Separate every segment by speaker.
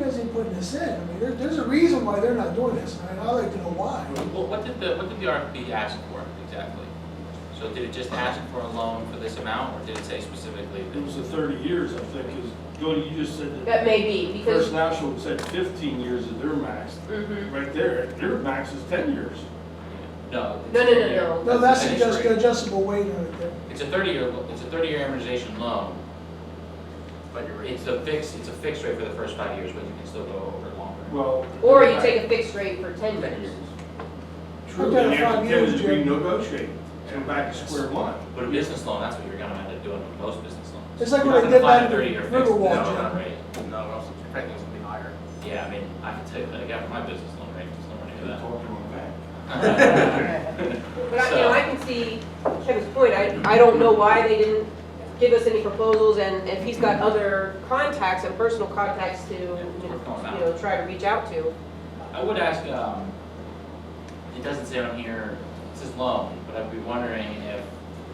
Speaker 1: this in. I mean, there, there's a reason why they're not doing this, and I'd like to know why.
Speaker 2: Well, what did the, what did the RFP ask for exactly? So did it just ask for a loan for this amount, or did it say specifically
Speaker 3: It was
Speaker 2: that?
Speaker 3: the 30 years, I think, because Jody, you just said that
Speaker 4: That may be,
Speaker 3: First
Speaker 4: because,
Speaker 3: National said 15 years is their max.
Speaker 4: Mhm.
Speaker 3: Right there, their max is 10 years.
Speaker 2: No.
Speaker 4: no, no, no, no.
Speaker 1: No, that's
Speaker 2: Finish
Speaker 1: just
Speaker 2: rate.
Speaker 1: adjustable weight right there.
Speaker 2: It's a thirty-year, it's a thirty-year amortization loan. But you're. It's a fixed, it's a fixed rate for the first five years, but you can still go over longer.
Speaker 3: Well,
Speaker 4: Or you take a fixed rate for ten
Speaker 2: Ten
Speaker 4: years.
Speaker 2: years.
Speaker 3: true,
Speaker 1: Okay,
Speaker 3: and
Speaker 1: five
Speaker 3: after 10
Speaker 1: years,
Speaker 3: is
Speaker 1: Jim.
Speaker 3: renegotiate, and back to square one.
Speaker 2: But a business loan, that's what you're gonna end up doing with most business loans.
Speaker 1: It's like
Speaker 2: You're
Speaker 1: what I
Speaker 2: not
Speaker 1: did
Speaker 2: gonna
Speaker 1: back
Speaker 2: find a
Speaker 1: in
Speaker 2: 30-year fixed
Speaker 1: Riverwalk,
Speaker 2: loan
Speaker 1: John.
Speaker 2: rate.
Speaker 5: No, we're also expecting this to be higher.
Speaker 2: Yeah, I mean, I can tell you, that I got my business loan rate, just nowhere
Speaker 3: Talking
Speaker 2: near
Speaker 3: about that.
Speaker 2: that.
Speaker 4: But I, you know, I can see Kevin's point, I, I don't know why they didn't give us any proposals, and if he's got other contacts and personal contacts to, you know, you know, try to reach out to.
Speaker 2: I would ask, um, it doesn't say on here, it says loan, but I'd be wondering if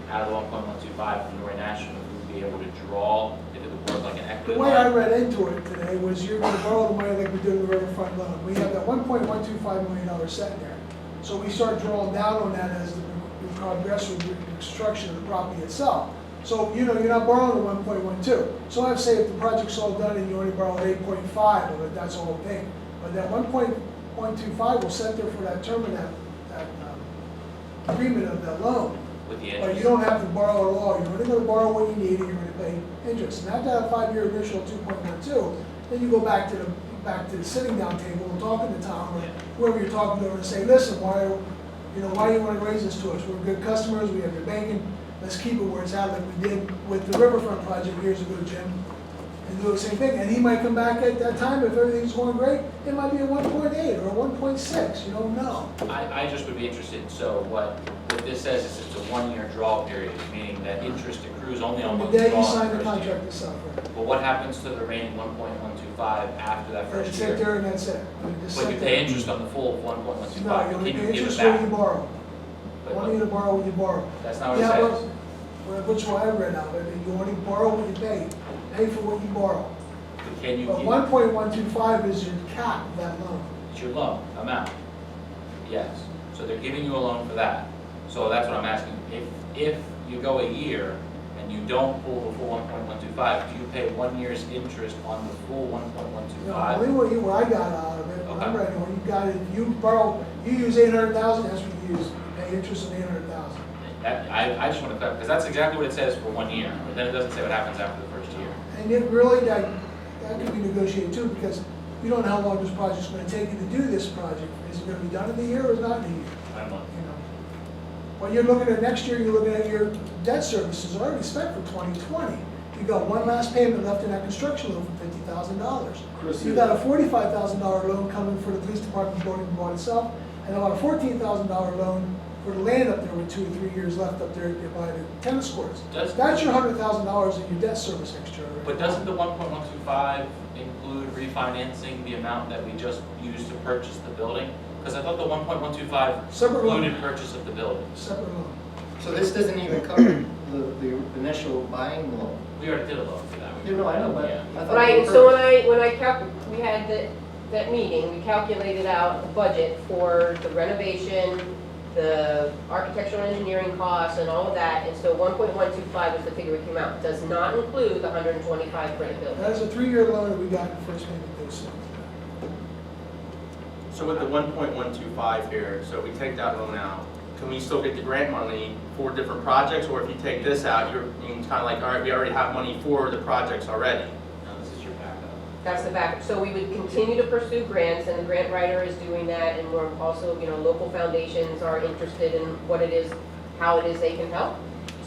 Speaker 2: out of the one point one two five from Norway National, we'd be able to draw if it was like an
Speaker 1: The
Speaker 2: equity
Speaker 1: way I
Speaker 2: line.
Speaker 1: read into it today was you're gonna borrow the money like we did in the river fund loan. We have that one point one two five million dollar set there. So we start drawing down on that as the the progress of the construction of the property itself. So, you know, you're not borrowing the one point one two. So I'd say if the project's all done and you only borrowed eight point five, of it, that's the whole thing. But that one point one two five will set there for that term of that, that um, agreement of that loan.
Speaker 2: With
Speaker 1: But
Speaker 2: the
Speaker 1: you
Speaker 2: interest.
Speaker 1: don't have to borrow at all, you're only gonna borrow what you need and you're gonna pay interest. And after that five-year initial two point one two, then you go back to the, back to the sitting down table and talking to Tom or
Speaker 2: Yeah.
Speaker 1: whoever you're talking to and say, listen, why, you know, why do you wanna raise this to us? We're good customers, we have your banking, let's keep it where it's at like we did with the riverfront project years ago, Jim. And do the same thing, and he might come back at that time, if everything's going great, it might be a one point eight or a one point six, you don't know.
Speaker 2: I, I just would be interested, so what, what this says is it's a one-year draw period, meaning that interest accrues only on
Speaker 1: The
Speaker 2: one draw.
Speaker 1: day you
Speaker 2: in
Speaker 1: sign the
Speaker 2: first year.
Speaker 1: contract is separate.
Speaker 2: But what happens to the remaining one point one two five after that
Speaker 1: And
Speaker 2: first
Speaker 1: sit
Speaker 2: year?
Speaker 1: there and that's it. Just
Speaker 2: But
Speaker 1: sit
Speaker 2: you
Speaker 1: there.
Speaker 2: pay interest on the full one point one two
Speaker 1: No,
Speaker 2: five,
Speaker 1: you
Speaker 2: can
Speaker 1: only
Speaker 2: you
Speaker 1: pay
Speaker 2: give it
Speaker 1: interest when you
Speaker 2: back?
Speaker 1: borrow.
Speaker 2: But
Speaker 1: Only to borrow when you borrow.
Speaker 2: That's not what it
Speaker 1: Yeah,
Speaker 2: says.
Speaker 1: well, well, Which one I read out, I mean, you only borrow what you pay, pay for what you borrow.
Speaker 2: But Can you
Speaker 1: But
Speaker 2: give?
Speaker 1: one point one two five is your cap of that loan.
Speaker 2: It's your loan amount. Yes, so they're giving you a loan for that. So that's what I'm asking, if, if you go a year and you don't pull the full one point one two five, do you pay one year's interest on the full one point one two
Speaker 1: No,
Speaker 2: five?
Speaker 1: only what you, what I got out of it, what I'm
Speaker 2: Okay.
Speaker 1: writing, what you got, if you borrow, you use eight hundred thousand, that's what you use, pay interest on eight hundred thousand.
Speaker 2: That, I, I just wanna clarify, because that's exactly what it says for one year, but then it doesn't say what happens after the first year.
Speaker 1: And it really, that, that could be negotiated too, because you don't know how long this project's gonna take you to do this project. Is it gonna be done in a year or is it not in a year? you know. When you're looking at next year, you're looking at your debt services already spent for twenty twenty. You got one last payment left in that construction loan for fifty thousand dollars.
Speaker 3: Chris,
Speaker 1: You
Speaker 3: you-
Speaker 1: got a forty-five thousand dollar loan coming for the police department building by itself, and about a fourteen thousand dollar loan for the land up there with two or three years left up there by the tennis courts.
Speaker 2: Does-
Speaker 1: That's your hundred thousand dollars in your debt service next year already.
Speaker 2: But doesn't the one point one two five include refinancing the amount that we just used to purchase the building? Because I thought the one point one two five
Speaker 1: Separate loan.
Speaker 2: included purchase of the building.
Speaker 1: Separate loan.
Speaker 5: So this doesn't even cover the, the initial buying loan.
Speaker 2: We already did a loan for that. We-
Speaker 5: You know, I know, but
Speaker 2: Yeah.
Speaker 5: I thought.
Speaker 4: Right,
Speaker 5: we
Speaker 4: and so when
Speaker 5: were-
Speaker 4: I, when I calc, we had the, that meeting, we calculated out the budget for the renovation, the architectural engineering costs and all of that, and so one point one two five was the figure we came out, does not include the hundred and twenty-five for the building.
Speaker 1: That is a three-year loan that we got in the first payment this year.
Speaker 6: So with the one point one two five here, so we take that loan out, can we still get the grant money for different projects? Or if you take this out, you're, you kind of like, all right, we already have money for the projects already.
Speaker 2: No, this is your backup.
Speaker 4: That's the backup. So we would continue to pursue grants, and the grant writer is doing that, and we're also, you know, local foundations are interested in what it is, how it is they can help.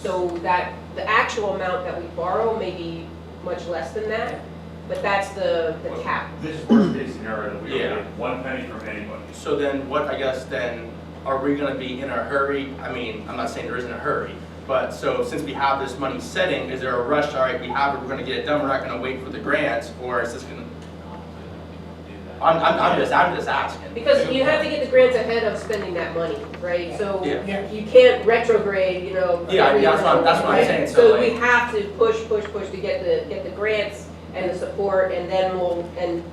Speaker 4: So that, the actual amount that we borrow may be much less than that, but that's the, the cap.
Speaker 7: This is worst case scenario, that we
Speaker 6: Yeah.
Speaker 7: don't get one penny from anybody.
Speaker 6: So then what, I guess, then, are we gonna be in a hurry? I mean, I'm not saying there isn't a hurry, but so since we have this money setting, is there a rush, all right, we have it, we're gonna get it done, we're not gonna wait for the grants? Or is this gonna, I'm, I'm, I'm just, I'm just asking.
Speaker 4: Because you have to get the grants ahead of spending that money, right? So
Speaker 6: Yeah.
Speaker 4: you can't retrograde, you know.
Speaker 6: Yeah, I mean, that's what I'm- that's what I'm
Speaker 4: right?
Speaker 6: saying, so
Speaker 4: So we
Speaker 6: like-
Speaker 4: have to push, push, push to get the, get the grants and the support, and then we'll, and